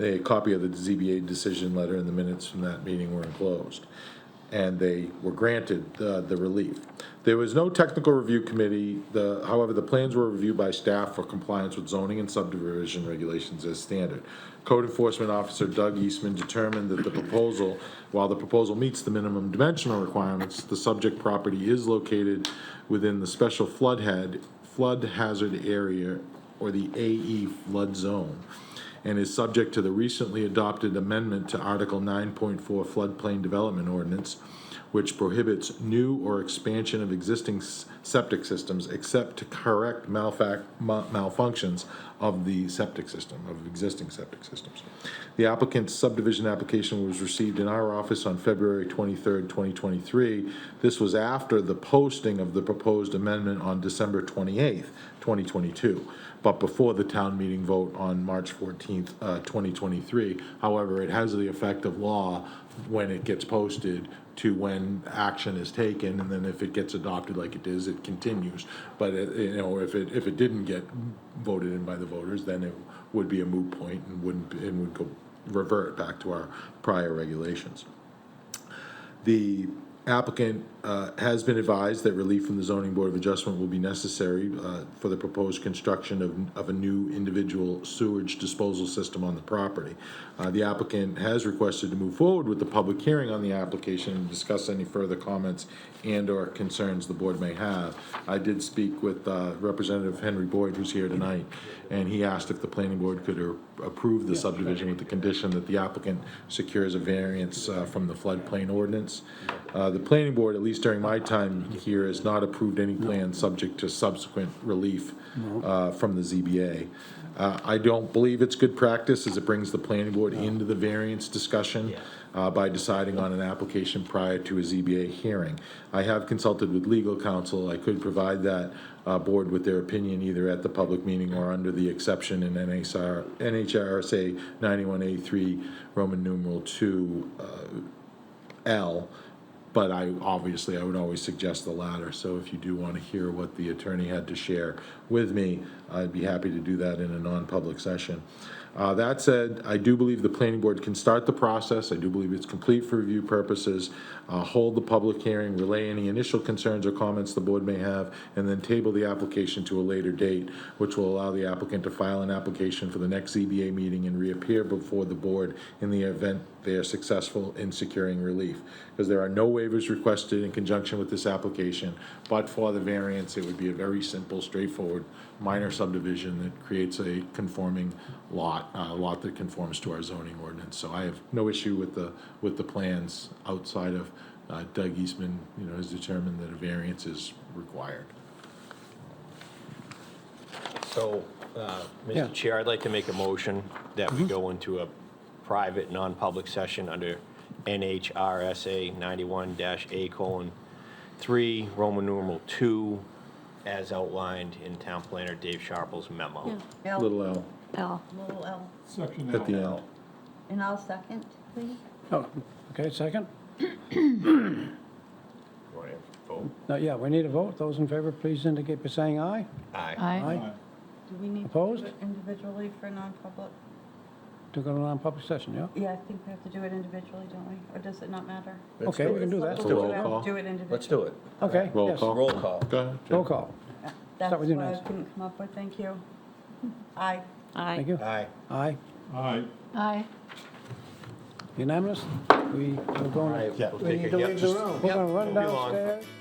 a copy of the ZBA decision letter and the minutes from that meeting were enclosed. And they were granted uh, the relief. There was no technical review committee, the, however, the plans were reviewed by staff for compliance with zoning and subdivision regulations as standard. Code enforcement officer Doug Eastman determined that the proposal, while the proposal meets the minimum dimensional requirements, the subject property is located within the special flood head, flood hazard area, or the AE flood zone, and is subject to the recently adopted amendment to Article 9.4 floodplain development ordinance, which prohibits new or expansion of existing s- septic systems except to correct malfac- ma- malfunctions of the septic system, of existing septic systems. The applicant's subdivision application was received in our office on February 23rd, 2023. This was after the posting of the proposed amendment on December 28th, 2022, but before the town meeting vote on March 14th, uh, 2023. However, it has the effect of law when it gets posted to when action is taken, and then if it gets adopted like it is, it continues. But, uh, you know, if it, if it didn't get voted in by the voters, then it would be a moot point and wouldn't, and would go, revert back to our prior regulations. The applicant uh, has been advised that relief from the zoning board of adjustment will be necessary uh, for the proposed construction of, of a new individual sewage disposal system on the property. Uh, The applicant has requested to move forward with the public hearing on the application and discuss any further comments and/or concerns the board may have. I did speak with uh, Representative Henry Boyd, who's here tonight, and he asked if the planning board could a- approve the subdivision with the condition that the applicant secures a variance uh, from the floodplain ordinance. Uh, The planning board, at least during my time here, has not approved any plan subject to subsequent relief uh, from the ZBA. Uh, I don't believe it's good practice, as it brings the planning board into the variance discussion uh, by deciding on an application prior to a ZBA hearing. I have consulted with legal counsel, I could provide that uh, board with their opinion either at the public meeting or under the exception in NHR NHRSA 91A3, Roman numeral 2, uh, L, but I, obviously, I would always suggest the latter. So if you do want to hear what the attorney had to share with me, I'd be happy to do that in a non-public session. Uh, That said, I do believe the planning board can start the process. I do believe it's complete for review purposes. Uh, Hold the public hearing, relay any initial concerns or comments the board may have, and then table the application to a later date, which will allow the applicant to file an application for the next ZBA meeting and reappear before the board in the event they are successful in securing relief. Because there are no waivers requested in conjunction with this application, but for the variance, it would be a very simple, straightforward, minor subdivision that creates a conforming lot, a lot that conforms to our zoning ordinance. So I have no issue with the, with the plans outside of uh, Doug Eastman, you know, has determined that a variance is required. So, uh, Yeah. Mm-hmm. Mr. Chair, I'd like to make a motion that we go into a private, non-public session under NHRSA 91-A colon 3, Roman numeral 2, as outlined in Town Planner Dave Sharple's memo. Little L L. Little L. Section at the L. And I'll second, please. Oh, okay, second? Want to vote? No, yeah, we need a vote. Those in favor, please indicate by saying aye. Aye. Aye. Do we need to do Opposed? it individually for non-public? To go to non-public session, yeah? Yeah, I think we have to do it individually, don't we? Or does it not matter? Okay, we can do that. Let's do it. Do Roll call. it individually. Let's do it. Okay, Roll yes. call. Roll call. Go ahead. Jim. Roll call. That's Start with you, what I Nancy. couldn't come up with, thank you. Aye. Aye. Thank you. Aye. Aye. Aye. Aye. Unanimous? We are All going, right, we'll we take need it. to Yep, leave the just- room. We're going to run Move along. downstairs.